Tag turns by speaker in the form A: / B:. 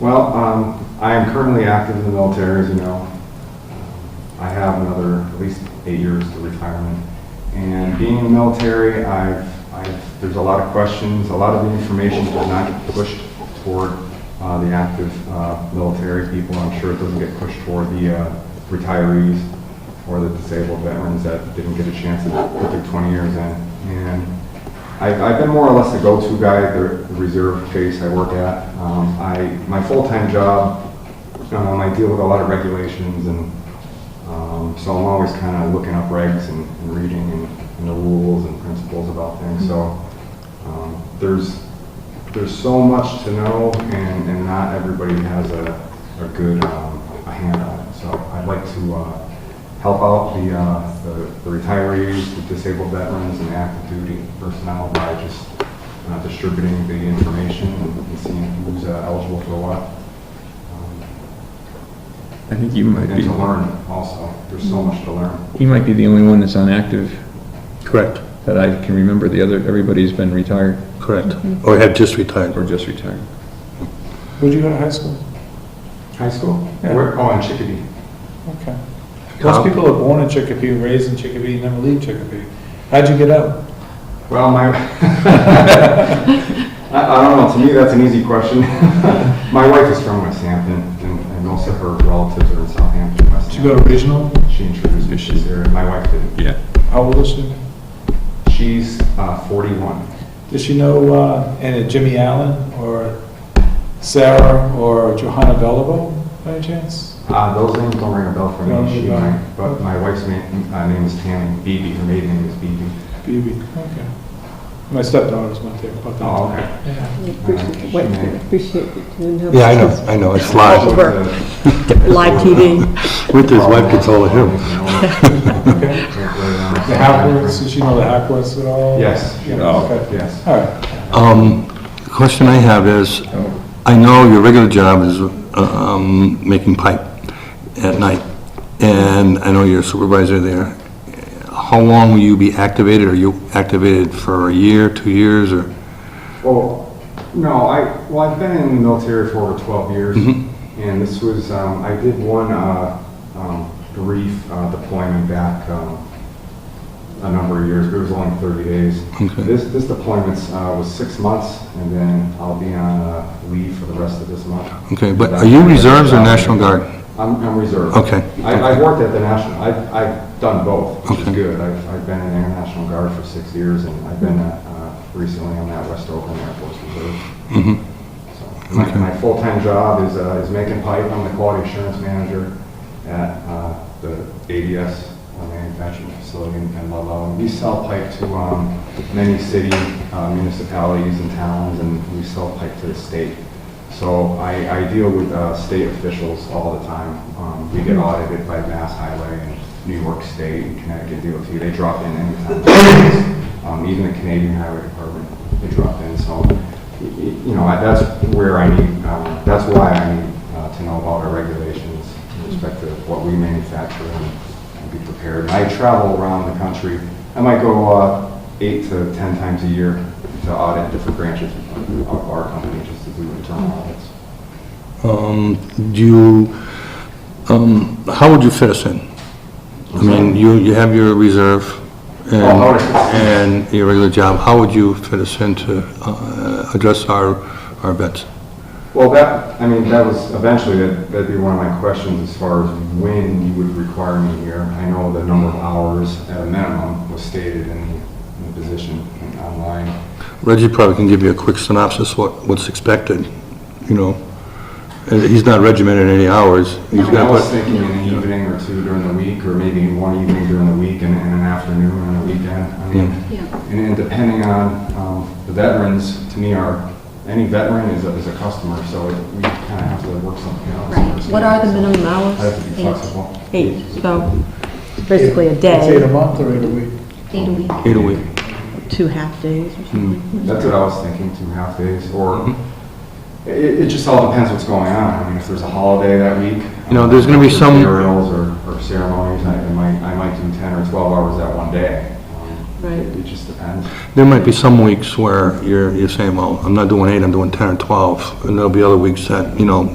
A: Well, um, I am currently active in the military, as you know. I have another at least eight years to retirement. And being in the military, I've, I've, there's a lot of questions, a lot of the information does not get pushed toward uh, the active uh, military people. I'm sure it doesn't get pushed toward the uh, retirees or the disabled veterans that didn't get a chance to put their 20 years in. And I've, I've been more or less the go-to guy at the reserve base I work at. Um, I, my full-time job, um, I deal with a lot of regulations and, um, so I'm always kind of looking up regs and, and reading and, and the rules and principles about things, so, um, there's, there's so much to know and, and not everybody has a, a good, um, a hand on it. So I'd like to, uh, help out the, uh, the- the retirees, the disabled veterans and active duty personnel by just uh, distributing the information and seeing who's uh, eligible for what. Um,
B: I think you might
A: And
B: be,
A: to learn also, there's so much to learn.
B: he might be the only one that's on active
C: Correct,
B: that I can remember. The other, everybody's been retired
C: correct. Or have Oh, just retired.
B: or just retired.
D: Where'd you go to high school?
A: High school?
D: Yeah.
A: Where, oh, in Chicopee.
D: Okay.
C: Huh?
D: Most people are born in Chicopee, raised in Chicopee, never leave Chicopee. How'd you get out?
A: Well, my, I, I don't know, to me, that's an easy question. My wife is from West Hampton, and and most of her relatives are in Southampton, West
D: Did you go to
A: Hampton.
D: regional?
A: She introduced me, she's here, and my wife did.
B: Yeah.
D: How old is she?
A: She's uh, 41.
D: Does she know, uh, any Jimmy Allen or Sarah or Johanna Beliveau by any chance?
A: Uh, Those names don't ring a bell for
D: Don't
A: me, she,
D: ring a bell.
A: might, but my wife's name, uh, name is Tammy Beebe, her maiden name is Beebe.
D: Phoebe, okay. My stepdaughters went there about that.
A: Oh, okay.
D: Yeah.
E: What- Appreciate it.
C: Yeah, I know, I know, it's live.
E: Over. Live TV.
C: With his wife gets all of him.
D: Okay. The Hackworths, does she know the Hackworths at all?
A: Yes, Oh. she
D: Yeah,
A: does.
D: Oh, okay.
A: yes.
D: All right,
C: Um, question I have is, I know your regular job is, um, making pipe at night, and I know you're a supervisor there. How long will you be activated? Are you activated for a year, two years, or?
A: Well, no, I, well, I've been in the military for over 12 years, and this was, um, I did one uh, um, brief uh, deployment back um, a number of years, but it was only 30 days.
C: Okay.
A: This, this deployment uh, was six months, and then I'll be on uh, leave for the rest of this month.
C: Okay, but are you reserves or National Guard?
A: I'm, I'm reserve.
C: Okay.
A: I, I've worked at the National, I've, I've done both, which is
C: Okay.
A: good. I've, I've been in the Air National Guard for six years, and I've been, uh, uh, recently on that West Oakland Air Force Reserve. So, My, my full-time job is, uh, is making pipe. I'm the quality assurance manager at, uh, the ADS uh, manufacturing facility in in Ludlow. And We sell pipe to, um, many city, uh, municipalities and towns, and we sell pipe to the state. So I, I deal with uh, state officials all the time. Um, We get audited by Mass Highway and New York State and Connecticut DOT. They drop in anytime. Um, Even the Canadian Highway Department, they drop in. So, y- y- you know, I- that's where I need, um, that's why I need uh, to know about our regulations in respect to what we manufacture and and be prepared. I travel around the country. I might go uh, eight to 10 times a year to audit different branches of our company just to do internal audits.
C: Um, do you, um, how would you fit us in? I mean, you, you have your reserve and,
A: Oh, how would I fit us in?
C: and your regular job. How would you fit us in to, uh, address our, our vets?
A: Well, that, I mean, that was eventually, that- that'd be one of my questions as far as when you would require me here. I know the number of hours at a minimum was stated in the- in the position and online.
C: Reggie probably can give you a quick synopsis what, what's expected, you know? Uh, He's not regimented in any hours. He's
A: I was
C: got,
A: thinking an evening or two during the week, or maybe one evening during the week and and an afternoon on a weekend. I mean, And then depending on um, the veterans, to me, are, any veteran is a, is a customer, so it- we kind of have to work something out.
E: What are the minimum hours?
A: I have to be
E: Eight.
A: flexible.
E: Eight, so it's basically a
D: it's eight a
E: day,
D: month or eight a week?
F: Eight a week.
C: eight a week.
E: two half-days or something.
A: That's what I was thinking, two half days, or,
C: Mm-hmm.
A: it, it just all depends what's going on. I mean, if there's a holiday that week.
C: You know, there's gonna be
A: um,
C: some-
A: Burials or, or ceremonies, I I might, I might do 10 or 12 hours that one day. Um,
E: Right.
A: It it just depends.
C: There might be some weeks where you're, you're saying, well, I'm not doing eight, I'm doing 10 or 12. And there'll be other weeks that, you know,